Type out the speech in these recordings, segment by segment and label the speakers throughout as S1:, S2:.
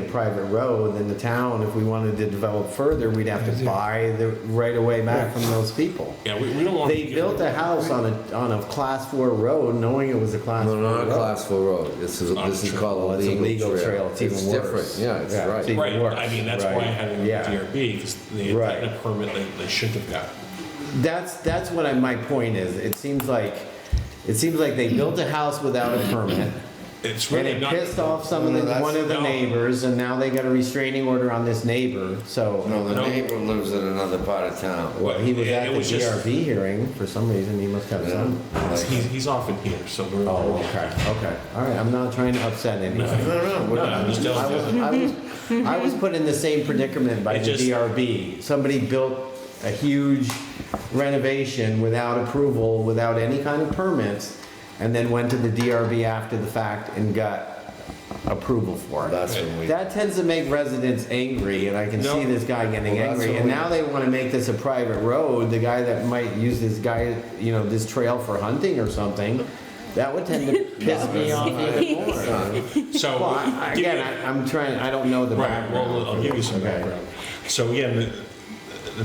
S1: a private road, then the town, if we wanted to develop further, we'd have to buy the right of way back from those people.
S2: Yeah, we, we don't want.
S1: They built a house on a, on a class four road, knowing it was a class
S3: No,
S1: four
S3: not a
S1: road.
S3: class four road. This is,
S2: Not a
S3: this is
S2: trail.
S3: called a
S1: It's a
S3: legal trail.
S1: It's even
S3: different,
S1: worse.
S3: yeah, it's
S1: it's even
S3: right.
S2: Right,
S1: worse.
S2: I mean, that's why I
S1: Right.
S2: had it in
S1: Yeah.
S2: DRB, because they had
S1: Right.
S2: gotten a permit they, they shouldn't have got.
S1: That's, that's what I, my point is. It seems like, it seems like they built a house without a permit.
S2: It's
S1: And
S2: really
S1: it
S2: not.
S1: pissed off some of
S4: No,
S1: the,
S4: that's-
S1: one of the
S2: no.
S1: neighbors, and now they got a restraining order on this neighbor, so.
S3: No, the
S2: No.
S3: neighbor lives in another part of town.
S1: Well, he was
S2: it-
S1: at
S2: it
S1: the
S2: was just-
S1: DRB hearing, for some reason, he must have some.
S3: Like-
S2: He's, he's often here, so we're.
S1: Oh, okay, okay, all right, I'm not trying to upset anybody.
S3: No, no,
S2: No, I'm just
S1: I
S2: telling
S1: was,
S2: you.
S1: I was, I was put in the same predicament by
S2: It
S1: the
S2: just-
S1: DRB. Somebody built a huge renovation without approval, without any kind of permits, and then went to the DRB after the fact and got approval for it.
S3: That's when we,
S1: That tends to make residents angry, and I can see
S2: No.
S1: this guy getting
S3: Well, that's
S1: angry.
S3: what
S1: And
S3: we-
S1: now they want to make this a private road, the guy that might use this guy, you know, this trail for hunting or something. That would tend to piss me off even more.
S2: So.
S1: Well, I-
S2: give
S1: again,
S2: me-
S1: I- I'm trying, I don't know the
S2: Right, well, I'll
S1: background.
S2: give you some
S1: Okay.
S2: background. So again, the,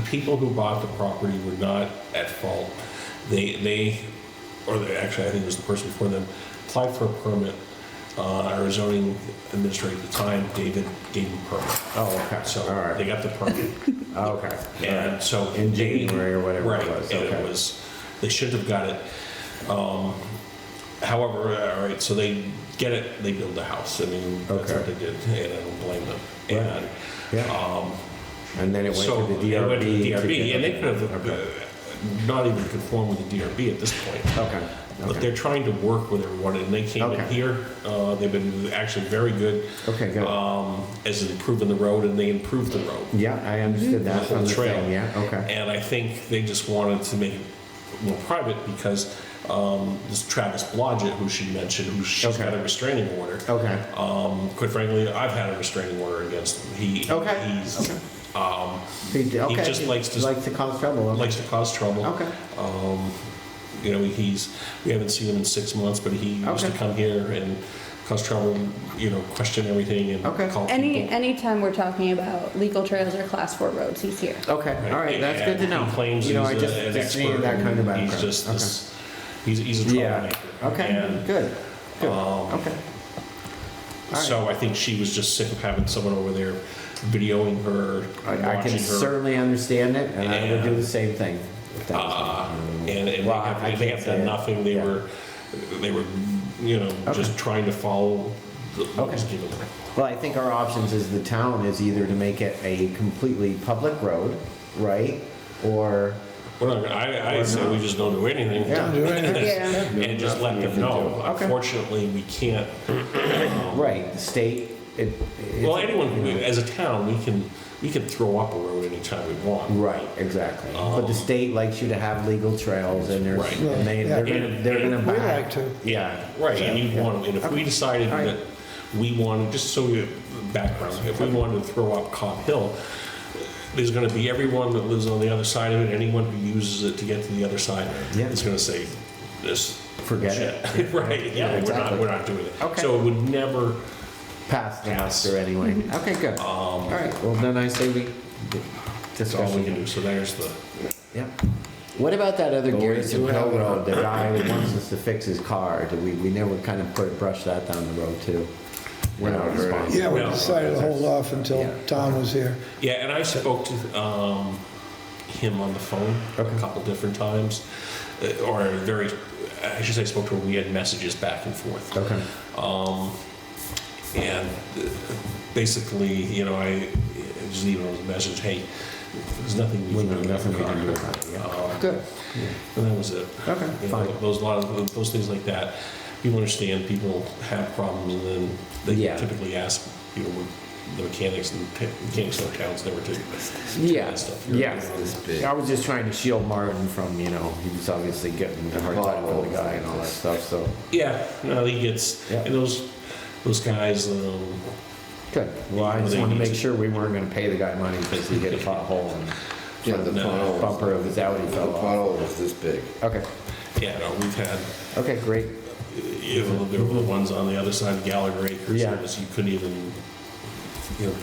S2: the people who bought the property were not at fault. They, they, or they, actually, I think it was the person before them, applied for a permit. Uh, our zoning administrator at the time, David, gave them a permit.
S1: Oh, okay,
S2: So
S1: all right.
S2: they got the permit.
S1: Okay.
S2: And so.
S1: In
S2: they-
S1: January or whatever it
S2: right,
S1: was,
S2: and
S1: okay.
S2: it was, they should have got it. Um, However, all right, so they get it, they build a house. I mean, that's what
S1: Okay.
S2: they did, and I don't blame them.
S1: Right.
S2: And,
S1: Yeah.
S2: um,
S1: And then it went
S2: so
S1: to the
S2: it went
S1: DRB.
S2: to
S1: to
S2: the DRB,
S1: get-
S2: and they could have uh,
S1: Okay.
S2: not even conform with the DRB at this point.
S1: Okay.
S2: But
S1: Oh, okay.
S2: they're trying to work with everyone, and they came in
S1: Okay.
S2: here. uh, They've been actually very good
S1: Okay, good.
S2: um, as improving the road, and they improved the road.
S1: Yeah, I understood that
S2: the
S1: from the
S2: trail.
S1: thing, yeah, okay.
S2: And I think they just wanted to make it more private because um, this Travis Blodgett, who she mentioned, who she's
S1: Okay.
S2: got a restraining order.
S1: Okay.
S2: Um, quite frankly, I've had a restraining order against him. He,
S1: Okay.
S2: he's, um,
S1: He d- okay,
S2: just likes to-
S1: Likes to cause trouble. okay.
S2: likes to cause trouble.
S1: Okay.
S2: Um, you know, he's, we haven't seen him in six months, but he used to
S1: Okay.
S2: come here and cause trouble, you know, question everything and
S1: Okay.
S2: call
S5: Any,
S2: people.
S5: anytime we're talking about legal trails or class four roads, he's here.
S1: Okay, all right, that's good to
S2: And
S1: know.
S2: He claims
S1: You know, I
S2: he's
S1: just
S2: a- an
S1: just
S2: expert.
S1: needed that kind of
S2: and
S1: background.
S2: He's just
S1: Okay.
S2: this, he's, he's a
S1: Yeah,
S2: troublemaker.
S1: okay,
S2: And
S1: good, good,
S2: Um,
S1: okay. All right.
S2: So I think she was just sick of having someone over there videoing her,
S1: I I
S2: watching
S1: can
S2: her.
S1: certainly understand it, and I would do the
S2: And-
S1: same thing. if that was me.
S2: Uh, and, and they
S1: Well, I
S2: have, they
S1: can't
S2: have
S1: say it.
S2: done nothing, they
S1: Yeah.
S2: were, they were, you know, just trying to follow the, what was
S1: Okay.
S2: given them.
S1: Well, I think our options is the town is either to make it a completely public road, right? Or,
S2: We're not, gonna- I, I say we just don't do anything.
S1: Yeah.
S5: Yeah.
S2: And just let them know.
S1: Okay.
S2: Unfortunately, we can't,
S1: right, the state, it. it's-
S2: Um, well, anyone, can do it. as a town, we can, we can throw up a road anytime we want.
S1: Right, exactly. But the
S2: Um,
S1: state likes you to have legal trails and there's,
S2: Right.
S1: and they, they're gonna, they're gonna
S4: We
S1: back.
S4: like to.
S1: Yeah.
S2: Right, and you want, and if we decided
S1: All right.
S2: that we wanted, just so you, background, if we wanted to throw up Cobb Hill, there's gonna be everyone that lives on the other side of it, anyone who uses it to get to the other side,
S1: Yeah.
S2: is gonna say, this.
S1: Forget it.
S2: shit. Right,
S1: Yeah,
S2: yeah, we're
S1: exactly.
S2: not, we're not doing it.
S1: Okay.
S2: So it would never,
S1: Pass the
S2: Pass.
S1: muster anyway. Okay, good. All right, well, then I say we
S2: that's all we can
S1: discuss.
S2: do, so there's the,
S1: Yep. What about that other
S3: But we
S1: Garrison
S3: do have
S1: Hill
S3: an
S1: Road,
S3: op-
S1: the guy who wants us to fix his car? Did we, we never kind of put, brush that down the road too? We're not
S3: Never heard of it.
S1: responsible.
S4: Yeah, we
S2: No.
S4: decided to hold off until
S1: Yeah.
S4: Tom was here.
S2: yeah, and I spoke to, um, him on the phone
S1: Okay.
S2: a couple different times, uh, or very, I should say, spoke to him, we had messages back and forth.
S1: Okay,
S2: Um, and uh, basically, you know, I I just leave a message, hey, there's nothing we
S1: Well,
S2: can do. about
S1: nothing we
S2: the
S1: can do
S2: car."
S1: about it, yeah.
S2: Um,
S1: good.
S2: And that was it.
S1: Okay,
S2: You know,
S1: fine.
S2: Those, lot of, those things like that, people understand, people have problems, and then
S1: Yeah.
S2: they typically ask, you know, the mechanics, and the mechanics in our towns never do this.
S1: Yeah,
S2: stuff. You're-
S1: yeah.
S3: This big.
S1: I was just trying to shield Martin from, you know, he was obviously getting the hard time from the guy and all that stuff, so,
S2: Yeah, no, he gets,
S1: Yeah.
S2: and those, those guys, um,
S1: good. Well, I just
S2: They
S1: wanted to
S2: need
S1: make
S2: to-
S1: sure we weren't gonna pay the guy money because he hit a pothole and
S3: Yeah, the
S2: No.
S3: pothole,
S1: bumper of his Audi
S3: the
S1: fell off.
S3: pothole was this big.
S1: Okay,
S2: yeah, no, we've had,
S1: okay, great.
S2: you know, there were the ones on the other side of Gallagher Acres,
S1: Yeah.
S2: it was- you couldn't even you know,